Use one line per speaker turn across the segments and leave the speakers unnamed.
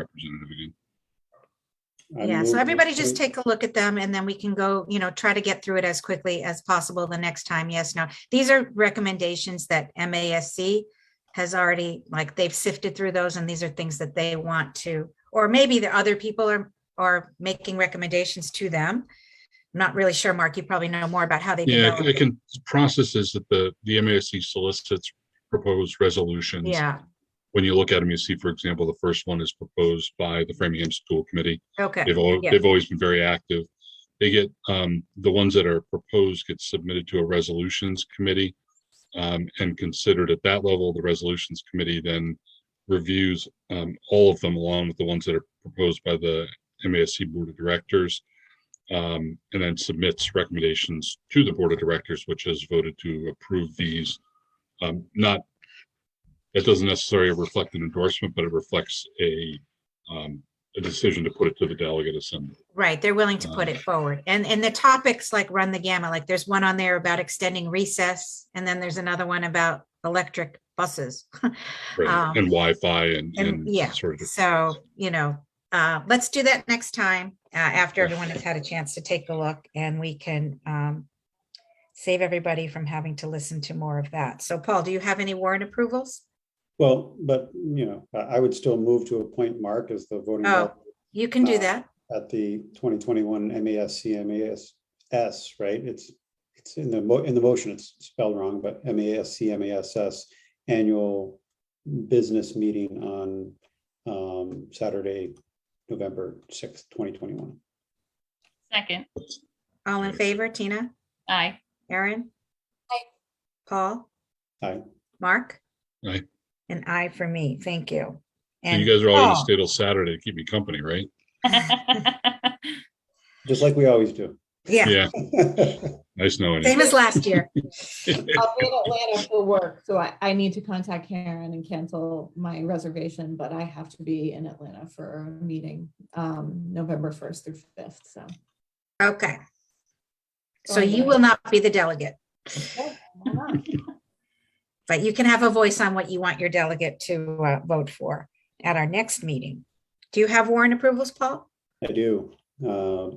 representative again.
I
Yeah,
move
so
to
everybody just
approve-
take a look at them and then we can go, you know, try to get through it as quickly as possible the next time. Yes, no. These are recommendations that MASC has already, like, they've sifted through those and these are things that they want to, or maybe the other people are, are making recommendations to them. I'm Not really sure, Mark, you probably know more about how they.
Yeah,
develop
I
it.
can, processes that the, the MASC solicits proposed resolutions.
Yeah,
When you look at them, you see, for example, the first one is proposed by the Framingham School Committee.
okay,
They've always,
yeah.
they've always been very active. They get, um, the ones that are proposed get submitted to a resolutions committee. Um, and considered at that level, the resolutions committee then reviews, um, all of them along with the ones that are proposed by the MASC Board of Directors. Um, and then submits recommendations to the Board of Directors, which has voted to approve these. Um, not, that doesn't necessarily reflect an endorsement, but it reflects a, um, a decision to put it to the delegate assembly.
right. They're willing to put it forward. And, and the topics like run the gamut, like there's one on there about extending recess and then there's another one about electric buses.
Right,
Um,
and Wi-Fi and,
and- yeah,
and sort of.
So, you know, uh, let's do that next time, uh, after
Yeah.
everyone has had a chance to take a look and we can, um, save everybody from having to listen to more of that. So Paul, do you have any warrant approvals?
Well, but, you know, I, I would still move to appoint Mark as the voting
Oh.
rep
You can do
Uh,
that.
at the twenty twenty-one MASC, MASS, right? It's, it's in the mo, in the motion, it's spelled wrong, but MASC, MASS annual business meeting on um, Saturday, November sixth, twenty twenty-one.
Second,
All in favor, Tina,
aye.
Aaron? Paul?
Aye.
Mark?
Aye.
An aye for me. Thank you.
And
And
you guys are all going to
Paul?
stay till Saturday to keep me company, right?
Just like we always do.
Yeah,
Yeah, nice knowing you.
same as last year.
I'll be in Atlanta for work, so I, I need to contact Karen and cancel my reservation, but I have to be in Atlanta for a meeting, um, November first through fifth, so.
Okay. So
Going
you
away.
will not be the delegate.
why not?
but you can have a voice on what you want your delegate to uh, vote for at our next meeting. Do you have warrant approvals, Paul?
I do. Uh,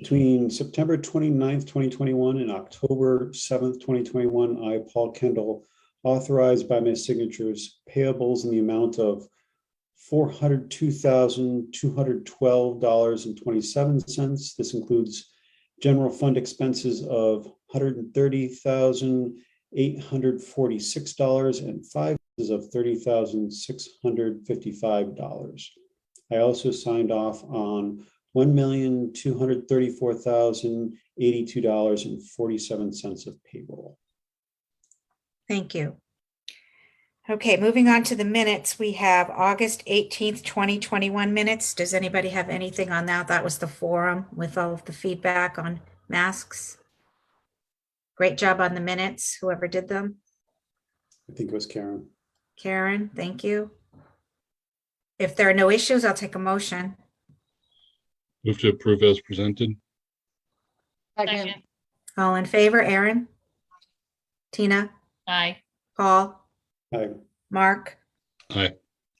Between September 29th, 2021 and October 7th, 2021, I, Paul Kendall, authorized by my signatures payables in the amount of $402,212.27. This includes general fund expenses of $130,846 and five of $30,655. I also signed off on one million, two hundred thirty-four thousand, eighty-two dollars and forty-seven cents of payroll.
Thank you. Okay, moving on to the minutes, we have August 18th, 2021 minutes. Does anybody have anything on that? That was the forum with all of the feedback on masks. Great job on the minutes, whoever did them.
I think it was Karen.
Karen, thank you. If there are no issues, I'll take a motion.
Move to approve as presented.
Second,
Second,
All in favor, Aaron? Tina?
Aye,
Paul?
I,
Mark?
Aye.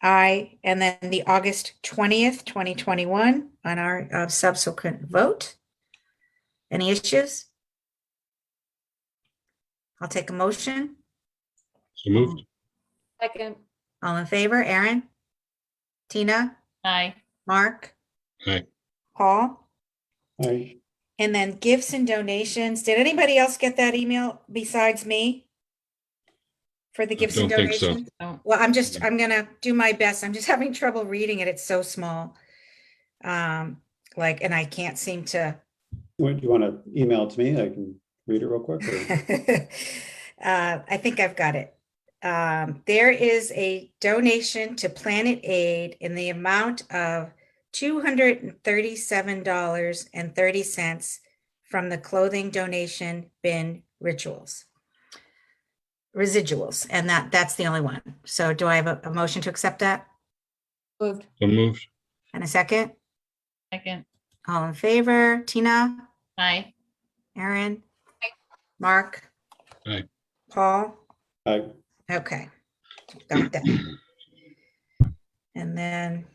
Aye, and then the August twentieth, twenty twenty-one on our uh, subsequent vote. Any issues? I'll take a motion.
So
Mm.
moved.
second,
All in favor, Aaron? Tina?
aye,
Mark?
Aye.
Paul?
I,
And then gifts and donations. Did anybody else get that email besides me? For the gifts and
don't think so.
donations?
Oh.
Well, I'm just, I'm gonna do my best. I'm just having trouble reading it. It's so small. Um, like, and I can't seem to.
what, do you want to email it to me? I can read it real quick. or-
Uh, I think I've got it. Um, there is a donation to Planet Aid in the amount of two hundred and thirty-seven dollars and thirty cents from the clothing donation bin rituals. Residuals, and that, that's the only one. So do I have a, a motion to accept that?
moved,
So moved.
And a second?
second,
All in favor? Tina?
aye,
Aaron? Mark?
Aye.
Paul?
I,
Okay. Got that. And then